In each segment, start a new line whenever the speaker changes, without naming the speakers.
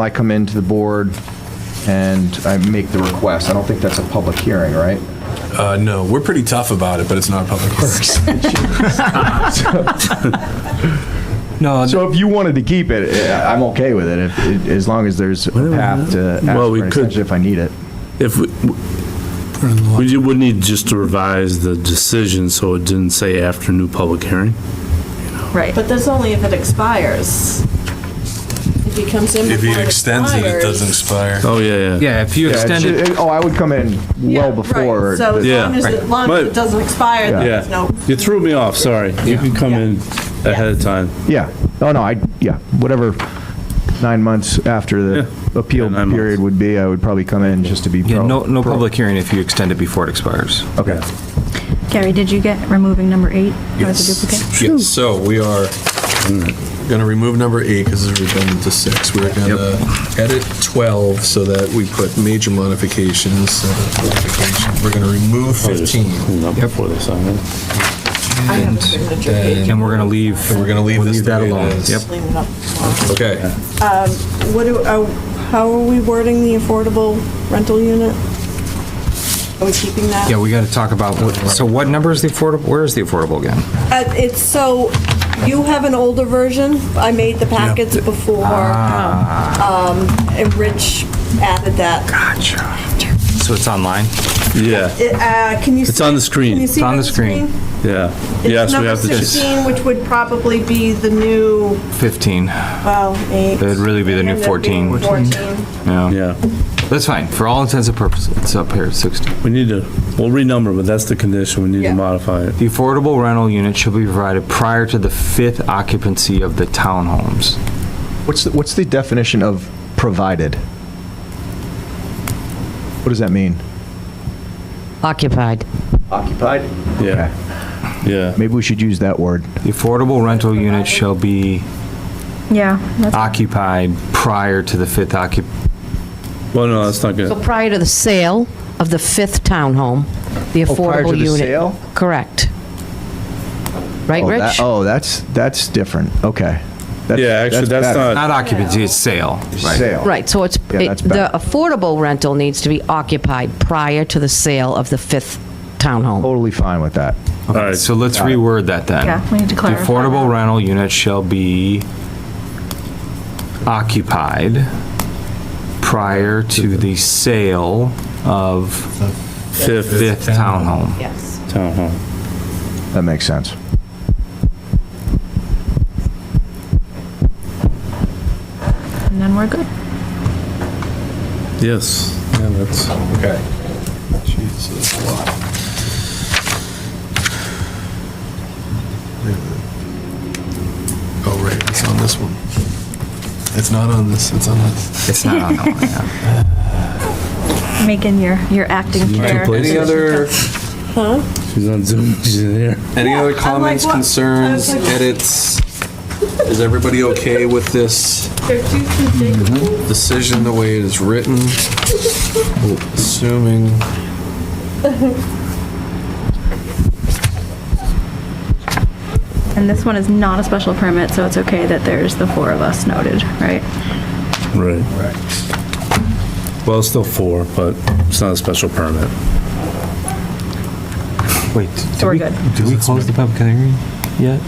I come into the board and I make the request. I don't think that's a public hearing, right?
Uh, no, we're pretty tough about it, but it's not public works.
No,
So if you wanted to keep it, eh, I'm okay with it, if, it- as long as there's a path to ask
Well,
for
we
an
could-
extension if I need it.
If, we- we would need just to revise the decision so it didn't say after new public hearing.
Right.
But that's only if it expires. If he comes in
If
before
he
it
extends it, it doesn't
expires.
expire.
Oh, yeah, yeah.
yeah, if you
Yeah, it
extend it,
should- Oh, I would come in well
Yeah, right.
before.
So as
the-
Yeah.
long as, it- long as
But-
it doesn't expire, then there's
Yeah,
no.
you threw me off, sorry. You can come in ahead of time.
Yeah, oh, no, I, yeah, whatever, nine months after the appeal
Yeah, nine
period would be, I would probably come in just to be.
yeah,
pro-
no, no
pro-
public hearing if you extend it before it expires.
Okay.
Gary, did you get removing number eight as a duplicate?
Yes, so we are gonna remove number eight because it's redundant to six. We're gonna edit 12 so that we put major modifications. uh, modification. We're gonna remove 15.
Clean up before they sign it.
I have a signature page.
And we're gonna leave,
And we're gonna leave
we'll
this
leave
the
that
way it
alone.
is.
Yep.
Clean it up tomorrow.
Okay,
What do, uh, how are we wording the affordable rental unit? Are we keeping that?
Yeah, we gotta talk about, what- so what number is the affordable, where is the affordable again?
Uh, It's so, you have an older version. I made the packets before. um, And Rich added that.
Gotcha. So it's online?
Yeah,
It, uh, Can you?
It's
see-
on the screen.
Can you see
It's on
it
the screen.
yeah.
It's
Yes, we
number
have to. just-
16, which would probably be the new,
Fifteen,
well, eight.
It'd really be the
Ended
new
up being
14.
14.
yeah.
Yeah,
That's fine, for all intents and purposes, it's up here at sixteen.
we need to, we'll renumber, but that's the condition. We need to
Yeah.
modify it.
The affordable rental unit shall be provided prior to the fifth occupancy of the townhomes.
What's, the- what's the definition of provided? What does that mean?
Occupied.
Occupied?
Yeah, yeah.
Maybe we should use that word.
The affordable rental unit shall be
Yeah. that's-
Ah.
occupied prior to the fifth occup,
Well, no, that's not
So
good.
prior to the sale of the fifth townhome, the
Oh, prior to
affordable
the
unit.
sale?
Correct. Right,
Oh, that-
Rich?
Oh, that's, that's different, okay. That's-
Yeah, actually, that's
better.
not,
not occupancy, it's sale, right?
Sale.
Right, so it's,
Yeah,
it-
that's
the
better.
affordable rental needs to be occupied prior to the sale of the fifth townhome.
Totally fine with that.
all right, so
So let's reword that then.
Yeah, we need to clarify.
The affordable
that.
rental unit shall be occupied prior to the sale of
fifth
fifth townhome.
Yes.
town hall.
That makes sense.
And then we're good.
Yes, yeah, that's.
okay. Jeez, that's a lot. Oh, right, it's on this one. It's not on this, it's on this.
It's not on that one, yeah.
Making your, your acting chair.
Any other
She's on Zoom, she's in here.
Any other
I'm
comments,
like, what? I was
concerns,
like-
edits? Is everybody okay with this
They're too configured.
decision the way it is written? Assuming.
And this one is not a special permit, so it's okay that there's the four of us noted, right?
Right. Well, it's still four, but it's not a special permit.
Wait,
So we're good.
did we close the public hearing yet?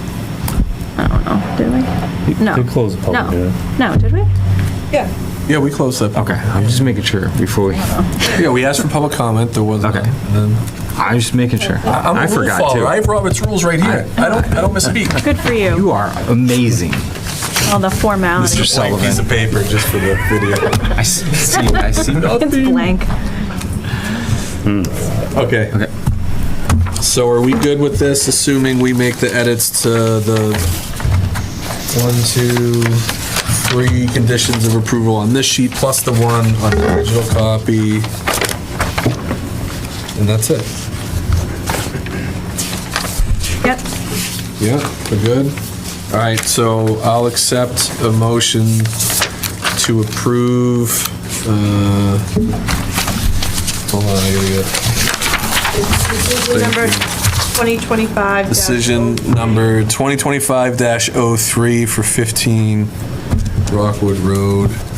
I don't know, did we? No.
They closed the
Oh,
public hearing.
No, no, did we?
Yeah.
Yeah, we closed that.
Okay, I'm just making sure before we,
Yeah, we asked for public comment, there wasn't.
Okay.
and then-
I'm just making sure.
I'm
I
a rule
forgot
follower, I
too.
have Robert's rules right here. I don't, I don't misspeak.
Good for you.
You are amazing,
All the formality.
Mr.
Piece
Sullivan.
of paper just for the video.
I s- see, I see.
It's blank.
Okay.
Okay.
So are we good with this, assuming we make the edits to the one, two, three conditions of approval on this sheet, plus the one on the original copy? And that's it?
Yep.
Yeah, we're good? All right, so I'll accept a motion to approve, uh, hold on, I gotta get.
Number 2025.
Decision oh number 2025-03 for 15 Rockwood Road.